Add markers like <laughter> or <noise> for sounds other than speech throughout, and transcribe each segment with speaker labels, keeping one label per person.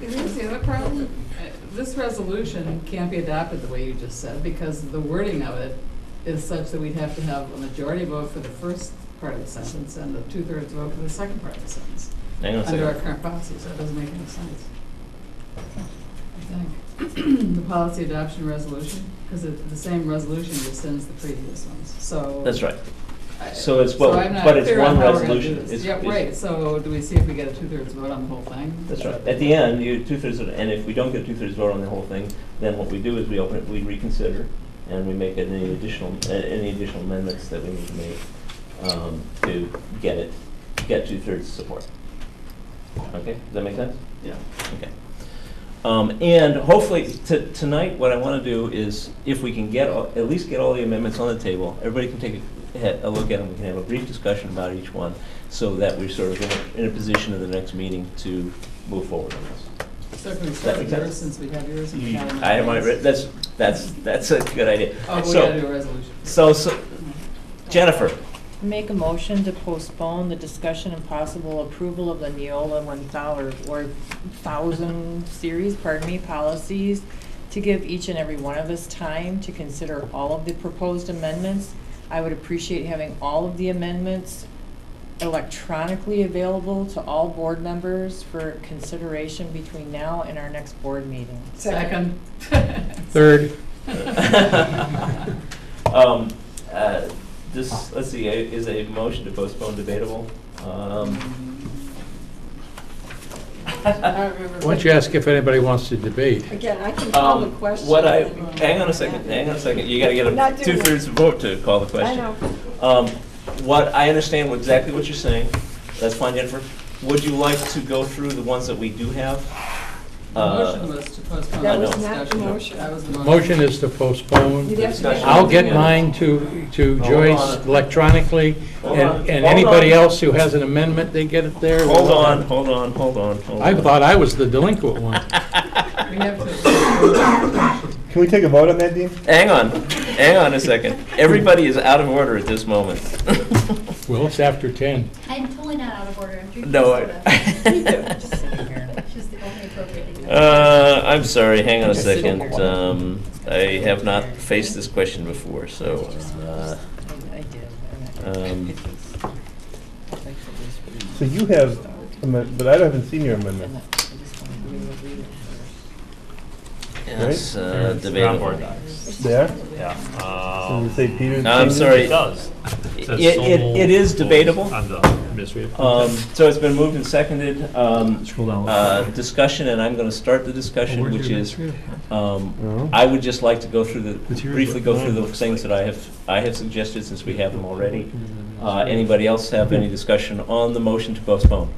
Speaker 1: There is the other problem, Uh, this resolution can't be adopted the way you just said, because the wording of it is such that we'd have to have a majority vote for the first part of the sentence and a two-thirds vote for the second part of the sentence.
Speaker 2: Hang on a
Speaker 1: Under our
Speaker 2: second.
Speaker 1: current policy, so it doesn't make any sense. I think. The policy adoption resolution, because the same resolution rescinds the previous ones, so.
Speaker 2: That's right.
Speaker 1: I-
Speaker 2: So it's what-
Speaker 1: so I'm not
Speaker 2: but it's
Speaker 1: clear on
Speaker 2: one
Speaker 1: how we're gonna do
Speaker 2: resolution.
Speaker 1: this.
Speaker 2: It's-
Speaker 1: Yep,
Speaker 2: it's-
Speaker 1: right, so do we see if we get a two-thirds vote on the whole thing?
Speaker 2: That's right. At the end, you, two-thirds, of- and if we don't get two-thirds vote on the whole thing, then what we do is we open it, we reconsider, and we make any additional, uh, any additional amendments that we need to make um, to get it, get two-thirds support. Okay, does that make sense?
Speaker 1: Yeah.
Speaker 2: Okay. Um, And hopefully, to- tonight, what I want to do is, if we can get, all- at least get all the amendments on the table, everybody can take a he- a look at them, we can have a brief discussion about each one, so that we're sort of in a- in a position at the next meeting to move forward on this.
Speaker 1: So can we start with
Speaker 2: That makes
Speaker 1: yours
Speaker 2: sense.
Speaker 1: since we have yours? and we
Speaker 2: You-
Speaker 1: have
Speaker 2: I have my,
Speaker 1: yours?
Speaker 2: writ- that's, that's, that's a good idea.
Speaker 1: Oh, we
Speaker 2: So-
Speaker 1: gotta do a resolution.
Speaker 2: So, so,
Speaker 1: <laughs>
Speaker 2: Jennifer, <laughs>
Speaker 3: Make a motion to postpone the discussion and possible approval of the Neola one thousand or thousand series, pardon me, policies to give each and every one of us time to consider all of the proposed amendments. I would appreciate having all of the amendments electronically available to all board members for consideration between now and our next board meeting.
Speaker 1: Second.
Speaker 4: Third.
Speaker 1: <laughs>
Speaker 2: um, uh, this, let's see, a- is a motion to postpone debatable?
Speaker 5: <laughs>
Speaker 2: Um,
Speaker 1: I don't
Speaker 2: um,
Speaker 1: remember.
Speaker 4: Why don't you ask if anybody wants to debate?
Speaker 5: Again, I can call the
Speaker 2: Um,
Speaker 5: question.
Speaker 2: What I,
Speaker 5: and then-
Speaker 2: hang on a second, hang on a second, you gotta get
Speaker 5: Not
Speaker 2: a
Speaker 5: doing
Speaker 2: two-thirds vote to call the
Speaker 5: I
Speaker 2: question.
Speaker 5: know.
Speaker 2: Um, what, I understand what- exactly what you're saying, that's fine, Jennifer. Would you like to go through the ones that we do have?
Speaker 1: The
Speaker 2: Uh,
Speaker 1: motion was to postpone.
Speaker 2: That
Speaker 1: the
Speaker 2: was
Speaker 5: not the
Speaker 1: discussion.
Speaker 5: motion.
Speaker 1: That was the motion.
Speaker 4: Motion is to postpone.
Speaker 5: You'd have to make-
Speaker 2: Discussion.
Speaker 4: I'll get mine to, to
Speaker 2: Hold
Speaker 4: Joyce
Speaker 2: on.
Speaker 4: electronically,
Speaker 2: Hold on.
Speaker 4: and, and
Speaker 2: Hold
Speaker 4: anybody
Speaker 2: on.
Speaker 4: else who has an amendment, they get it there.
Speaker 2: Hold on, hold on, hold on, hold on.
Speaker 4: I thought I was the delinquent one.
Speaker 1: We have to. <coughs>
Speaker 6: Can we take a vote on that, Dean?
Speaker 2: Hang on, hang on a second. Everybody is out of order at this moment.
Speaker 4: <laughs> Well, it's after 10.
Speaker 7: I'm totally not out of order. I'm drinking
Speaker 2: No.
Speaker 7: soda. <laughs>
Speaker 3: Just sitting here.
Speaker 7: Which is the only appropriate thing.
Speaker 2: Uh, I'm sorry, hang on a
Speaker 3: Just sit
Speaker 2: second.
Speaker 3: over.
Speaker 2: Um, I have not faced this question before, so, uh,
Speaker 3: I I did. <laughs>
Speaker 2: Um,
Speaker 6: So you have, amend- but I haven't seen your amendment.
Speaker 2: yes,
Speaker 8: They're-
Speaker 2: uh,
Speaker 8: they're on board
Speaker 2: debatable.
Speaker 8: docs.
Speaker 6: There?
Speaker 8: Yeah.
Speaker 6: So
Speaker 8: um,
Speaker 6: you say Peter?
Speaker 2: No, I'm
Speaker 6: changes?
Speaker 2: sorry.
Speaker 8: It does.
Speaker 2: Uh, It-
Speaker 8: says
Speaker 2: it-
Speaker 8: so
Speaker 2: it-
Speaker 8: moved
Speaker 2: it is
Speaker 8: on
Speaker 2: debatable.
Speaker 8: the administrative.
Speaker 2: Um, so it's been moved and seconded, um,
Speaker 8: Scroll down.
Speaker 2: uh, discussion, and I'm gonna start the discussion, which is, um, I would just like to go through the,
Speaker 8: But here's
Speaker 2: briefly
Speaker 8: what
Speaker 2: go
Speaker 8: mine
Speaker 2: through the
Speaker 8: looks
Speaker 2: things
Speaker 8: like.
Speaker 2: that I have, I have suggested since we have them already. Uh, anybody else have any discussion on the motion to postpone?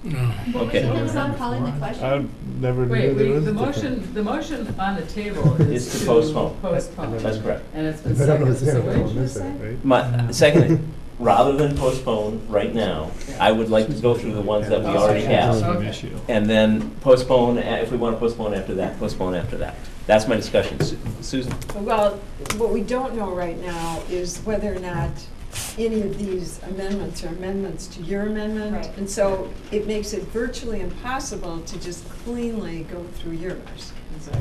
Speaker 7: What was
Speaker 2: okay.
Speaker 7: it that was on calling the question?
Speaker 6: I never
Speaker 1: Wait,
Speaker 6: knew
Speaker 1: we-
Speaker 6: there was.
Speaker 1: the
Speaker 6: a different-
Speaker 1: motion, the motion on the table is
Speaker 2: Is to
Speaker 1: to
Speaker 2: postpone.
Speaker 1: postpone.
Speaker 2: That's correct.
Speaker 1: And it's been
Speaker 6: But <laughs> I
Speaker 1: seconded,
Speaker 6: don't understand
Speaker 1: so
Speaker 6: what
Speaker 1: what did
Speaker 6: I'm
Speaker 1: you just say?
Speaker 6: missing, right?
Speaker 2: My, secondly, rather than postpone right now, I would like to go through the ones that <laughs> we already have.
Speaker 1: Okay.
Speaker 8: issue.
Speaker 2: And then postpone, uh, if we want to postpone after that, postpone after that. That's my discussion. Su- Susan?
Speaker 5: Well, what we don't know right now is whether or not any of these amendments are amendments to your amendment.
Speaker 7: Right.
Speaker 5: And so it makes it virtually impossible to just cleanly go through yours.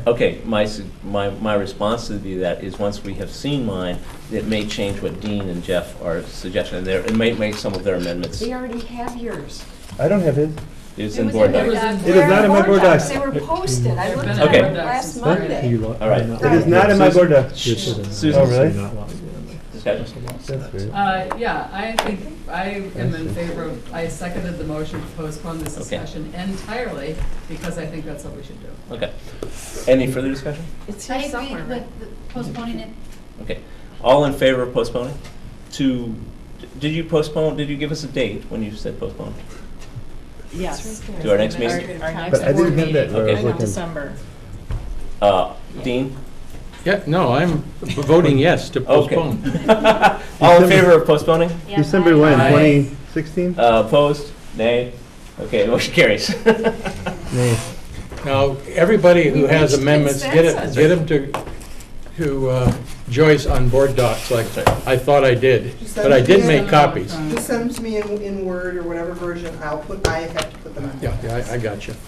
Speaker 2: Okay, my, su- my, my response to be that is, once we have seen mine, it may change what Dean and Jeff are suggesting, and there, it may make some of their amendments.
Speaker 5: We already have yours.
Speaker 6: I don't have his.
Speaker 2: It's
Speaker 7: It
Speaker 2: in
Speaker 7: was
Speaker 2: board
Speaker 1: there.
Speaker 2: docs.
Speaker 1: docs.
Speaker 6: It is not in my board docs.
Speaker 5: They were posted. I looked at
Speaker 2: Okay.
Speaker 5: them last
Speaker 1: Huh?
Speaker 5: Monday.
Speaker 2: All right.
Speaker 6: It is not in my board doc.
Speaker 2: Susan?
Speaker 6: Oh, really?
Speaker 2: Discussion?
Speaker 6: That's weird.
Speaker 1: Uh, yeah, I think, I am in favor of, I seconded the motion to postpone this
Speaker 2: Okay.
Speaker 1: discussion entirely, because I think that's what we should do.
Speaker 2: Okay. Any further discussion?
Speaker 5: It's here
Speaker 7: I agree
Speaker 5: somewhere, right?
Speaker 7: with the- postponing it.
Speaker 2: Okay. All in favor of postponing? To, did you postpone, did you give us a date when you said postpone?
Speaker 3: Yes.
Speaker 2: To our next
Speaker 3: Our,
Speaker 2: meeting?
Speaker 3: our next
Speaker 6: But I
Speaker 3: board
Speaker 6: didn't have that
Speaker 3: meeting,
Speaker 6: where I was
Speaker 2: Okay.
Speaker 6: looking.
Speaker 3: December.
Speaker 2: Uh, Dean?
Speaker 4: Yeah, no, I'm voting yes to
Speaker 2: Okay.
Speaker 4: postpone.
Speaker 2: <laughs> All in favor of postponing?
Speaker 6: December when,
Speaker 2: Aye.
Speaker 6: twenty sixteen?
Speaker 2: Uh, Opposed? Nay? Okay, motion carries. <laughs>
Speaker 6: Nay.
Speaker 4: Now, everybody who
Speaker 5: We
Speaker 4: has
Speaker 5: reached
Speaker 4: amendments, get it,
Speaker 5: consensus.
Speaker 4: get them to, to uh, Joyce on board docs like I thought I did, but I did make copies.
Speaker 9: Just send them to me in, in Word or whatever version, I'll put, I have to put them in.
Speaker 4: Yeah, yeah, I I got you.